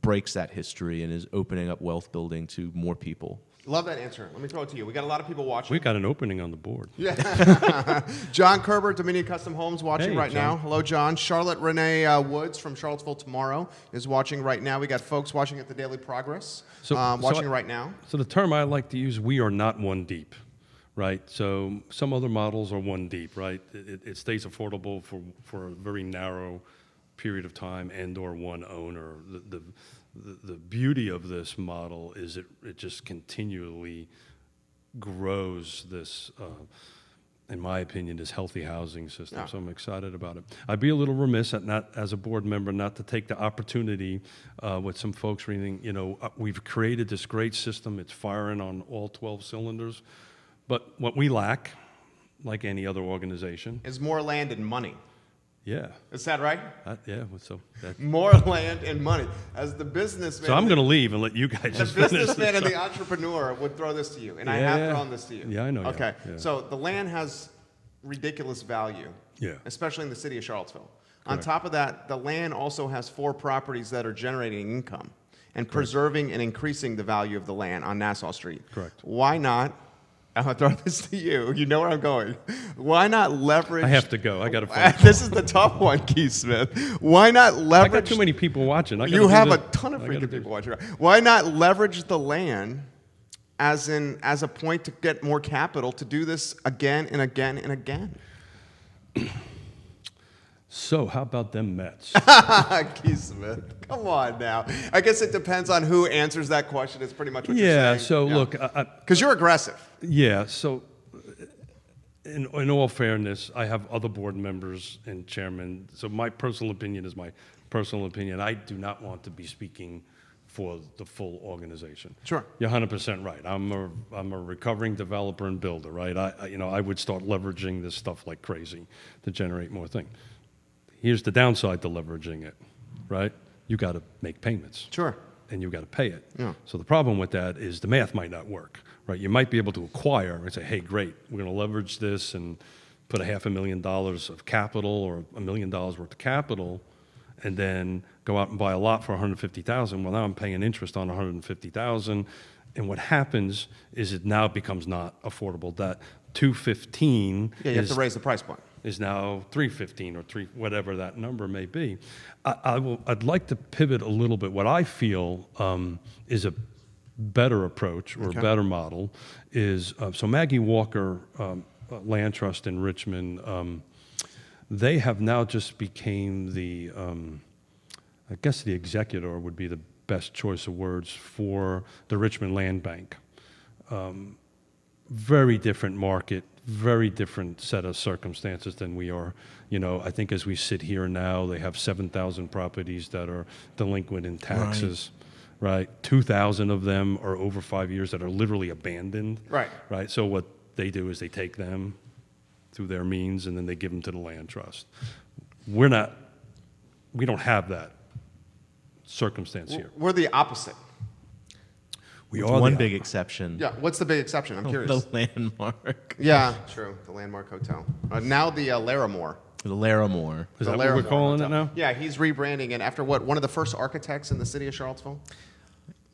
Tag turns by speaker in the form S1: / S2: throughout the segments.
S1: breaks that history and is opening up wealth building to more people.
S2: Love that answer. Let me throw it to you. We got a lot of people watching.
S3: We've got an opening on the board.
S2: John Kerber, Dominion Custom Homes, watching
S3: Hey,
S2: right now.
S3: John.
S2: Hello, John. Charlotte Renee uh, Woods from Charlottesville Tomorrow is watching right now. We got folks watching at the Daily Progress,
S3: So-
S2: um,
S3: so
S2: watching
S3: I-
S2: right now.
S3: So the term I like to use, we are not one deep, right? So some other models are one deep, right? It, it- it stays affordable for, for a very narrow period of time and or one owner. The, the, the, the beauty of this model is it, it just continually grows this, uh, in my opinion, this healthy housing system. So I'm excited about it. I'd be a little remiss at not, as a board member, not to take the opportunity uh, with some folks reading. You know, uh, we've created this great system. It's firing on all 12 cylinders, but what we lack, like any other organization,
S2: Is more land and money.
S3: yeah,
S2: Is that right?
S3: I, yeah. well, So that,
S2: More land and money. As the businessman,
S3: so I'm going to leave and let you guys
S2: the
S3: just finish.
S2: businessman
S3: this.
S2: and the entrepreneur would throw this to you, and I have
S3: Yeah.
S2: thrown this to you.
S3: Yeah, I know you have.
S2: Okay,
S3: Yeah.
S2: so the land has ridiculous value.
S3: Yeah.
S2: Especially in the city of Charlottesville. On
S3: Correct.
S2: top of that, the land also has four properties that are generating income and preserving and increasing the value of the land on Nassau Street.
S3: Correct.
S2: Why not? I'm gonna throw this to you. You know where I'm going. Why not leverage?
S3: I have to go. I got a phone
S2: This is the tough one, Keith Smith. Why not
S3: I
S2: leverage?
S3: got too many people watching. I gotta
S2: you
S3: do
S2: have
S3: this.
S2: a ton of
S3: I gotta
S2: freaking
S3: do-
S2: people watching. Why not leverage the land as in as a point to get more capital to do this again and again and again?
S3: So how about them Mets?
S2: Keith Smith, come on now. I guess it depends on who answers that question. Is pretty much what
S3: yeah.
S2: you're saying.
S3: So look, I, I,
S2: because you're aggressive.
S3: Yeah, so uh, in, in all fairness, I have other board members and chairmen, so my personal opinion is my personal opinion. I do not want to be speaking for the full organization.
S2: Sure.
S3: You're 100% right. I'm a, I'm a recovering developer and builder, right? I, I- you know, I would start leveraging this stuff like crazy to generate more thing. Here's the downside to leveraging it, right? You got to make payments
S2: Sure.
S3: and you've got to pay it.
S2: Yeah.
S3: So the problem with that is the math might not work, right? You might be able to acquire and say, hey, great, we're going to leverage this and put a half a million dollars of capital or a million dollars worth of capital, and then go out and buy a lot for 150,000. Well, now I'm paying interest on 150,000, and what happens is it now becomes not affordable. That 215
S2: Yeah, you
S3: is
S2: have to raise the price point.
S3: is now 315 or 3 whatever that number may be I, I will, i'd like to pivot a little bit what i feel um, is a better approach or a better model is uh, so maggie walker um, uh, land trust in richmond um, they have now just became the um, I guess the executor would be the best choice of words for the Richmond Land Bank. Um, very different market, very different set of circumstances than we are. You know, I think as we sit here now, they have 7,000 properties that are delinquent in taxes, right? 2,000 of them are over five years that are literally abandoned.
S2: Right.
S3: Right. So what they do is they take them through their means and then they give them to the land trust. We're not, we don't have that circumstance here.
S2: We're the opposite.
S3: We
S1: With
S3: are
S1: one
S3: the-
S1: big exception.
S2: Yeah. What's the big exception?
S3: Oh,
S2: I'm curious.
S1: The landmark.
S2: yeah. True. The Landmark Hotel. Uh, now the uh, Laramore.
S1: The Laramore.
S3: Is
S2: The
S3: that what we're
S2: Laramore
S3: calling it
S2: Hotel.
S3: now?
S2: Yeah, he's rebranding it after what? One of the first architects in the city of Charlottesville.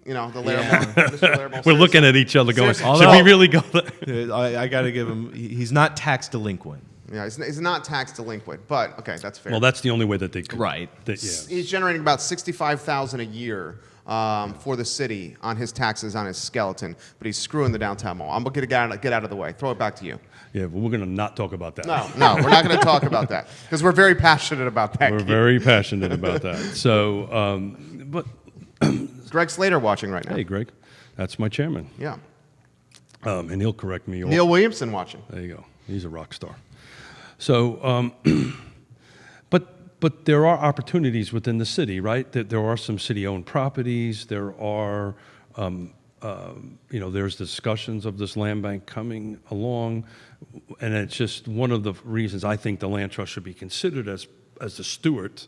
S2: You know, the
S1: Yeah.
S2: Laramore. Mr. Laramore
S3: We're looking at each other going,
S2: Seriously.
S3: should
S1: Although-
S3: we really go there?
S1: Uh, I, I got to give him, he- he's not tax delinquent.
S2: Yeah, he's, he's not tax delinquent, but okay, that's fair.
S3: Well, that's the only way that they could.
S1: Right.
S3: That, yeah.
S2: he's generating about sixty-five thousand a year um, for the city on his taxes on his skeleton, but he's screwing the downtown mall. I'm gonna get out, get out of the way. Throw it back to you.
S3: Yeah, but we're going to not talk about that.
S2: No, no, we're not gonna talk about that because we're very passionate about that.
S3: We're
S2: Keith.
S3: very passionate about that. So, um, but
S2: Greg Slater watching right now.
S3: hey, Greg, that's my chairman.
S2: Yeah,
S3: Um, and he'll correct me. or-
S2: Neil Williamson watching.
S3: There you go. He's a rock star. So, um, but but there are opportunities within the city, right? That there are some city-owned properties. There are, um, um, you know, there's discussions of this land bank coming along, and it's just one of the reasons I think the land trust should be considered as as the steward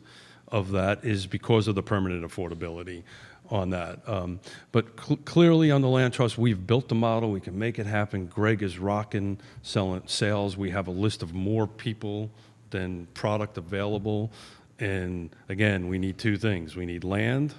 S3: of that is because of the permanent affordability on that. Um, but cl- clearly, on the land trust, we've built the model. We can make it happen. Greg is rocking selling sales. We have a list of more people than product available. And again, we need two things: we need land